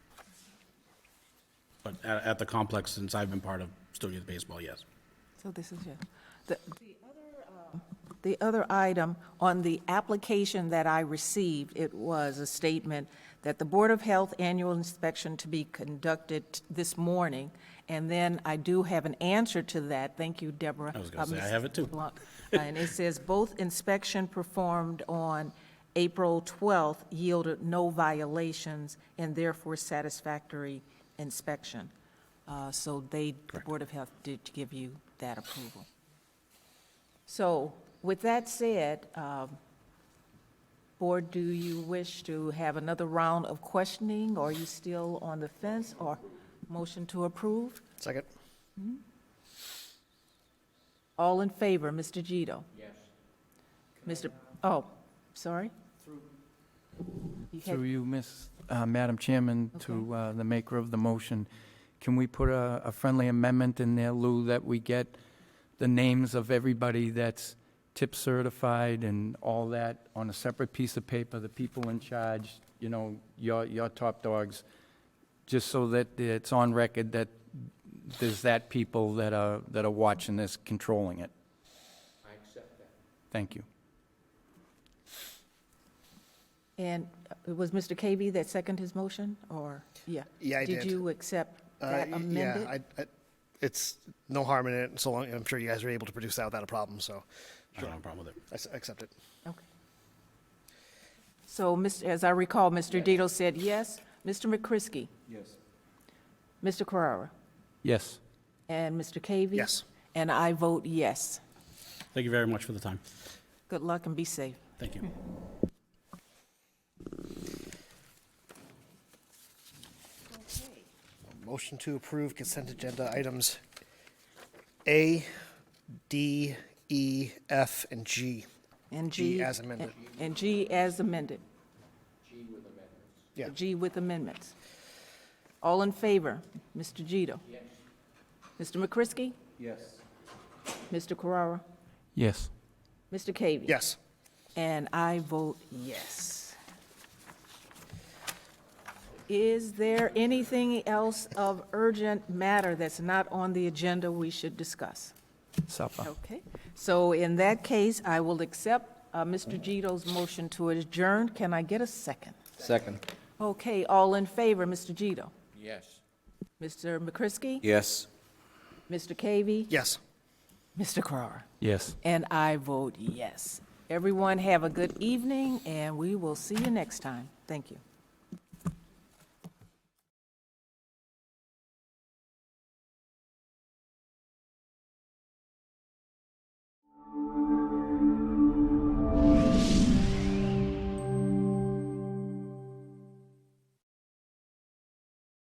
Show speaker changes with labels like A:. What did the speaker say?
A: But at, at the complex, since I've been part of Stony Youth Baseball, yes.
B: So this is, yeah. The the other, uh, the other item on the application that I received, it was a statement that the Board of Health annual inspection to be conducted this morning. And then I do have an answer to that. Thank you, Deborah.
A: I was gonna
B: Uh,
A: say, I
B: Ms.
A: have it too.
B: Blunt. Uh, And it says, both inspection performed on April 12th yielded no violations and therefore satisfactory inspection. Uh, So they, the Board of Health did give you that approval. So with that said, um, Board, do you wish to have another round of questioning? Or are you still on the fence or motion to approve?
C: Second.
B: All in favor, Mr. Gito? Yes. Mr., oh, sorry? You had-
D: Through you, Miss, uh, Madam Chairman, to uh, the maker of the motion, can we put a a friendly amendment in there, Lou, that we get the names of everybody that's tip certified and all that on a separate piece of paper, the people in charge, you know, your, your top dogs, just so that it's on record that there's that people that are, that are watching this, controlling it? I accept that. Thank you.
B: And it was Mr. KB that seconded his motion, or, yeah?
C: Yeah, I
B: Did
C: did.
B: you accept
C: Uh,
B: that
C: y-
B: amended?
C: Yeah, I, I, it's no harm in it, so long, I'm sure you guys are able to produce that without a problem, so
A: I don't have a problem with it.
C: I s- accept it.
B: Okay. So, Mr. as I recall, Mr. Dito said yes. Mr. McCrisky? Yes. Mr. Carrara?
D: Yes.
B: And Mr. Cavey?
C: Yes.
B: And I vote yes.
A: Thank you very much for the time.
B: Good luck and be safe.
A: Thank you.
C: Motion to approve consent agenda items A, D, E, F, and G.
B: And
C: G
B: G.
C: as amended.
B: And G as amended.
C: Yeah.
B: G with amendments. All in favor? Mr. Gito? Yes. Mr. McCrisky? Yes. Mr. Carrara?
D: Yes.
B: Mr. Cavey?
C: Yes.
B: And I vote yes. Is there anything else of urgent matter that's not on the agenda we should discuss?
D: Supper.
B: Okay, so in that case, I will accept uh, Mr. Gito's motion to adjourn. Can I get a second?
E: Second.
B: Okay, all in favor, Mr. Gito?
E: Yes.
B: Mr. McCrisky?
E: Yes.
B: Mr. Cavey?
C: Yes.
B: Mr. Carrara?
D: Yes.
B: And I vote yes. Everyone have a good evening, and we will see you next time. Thank you.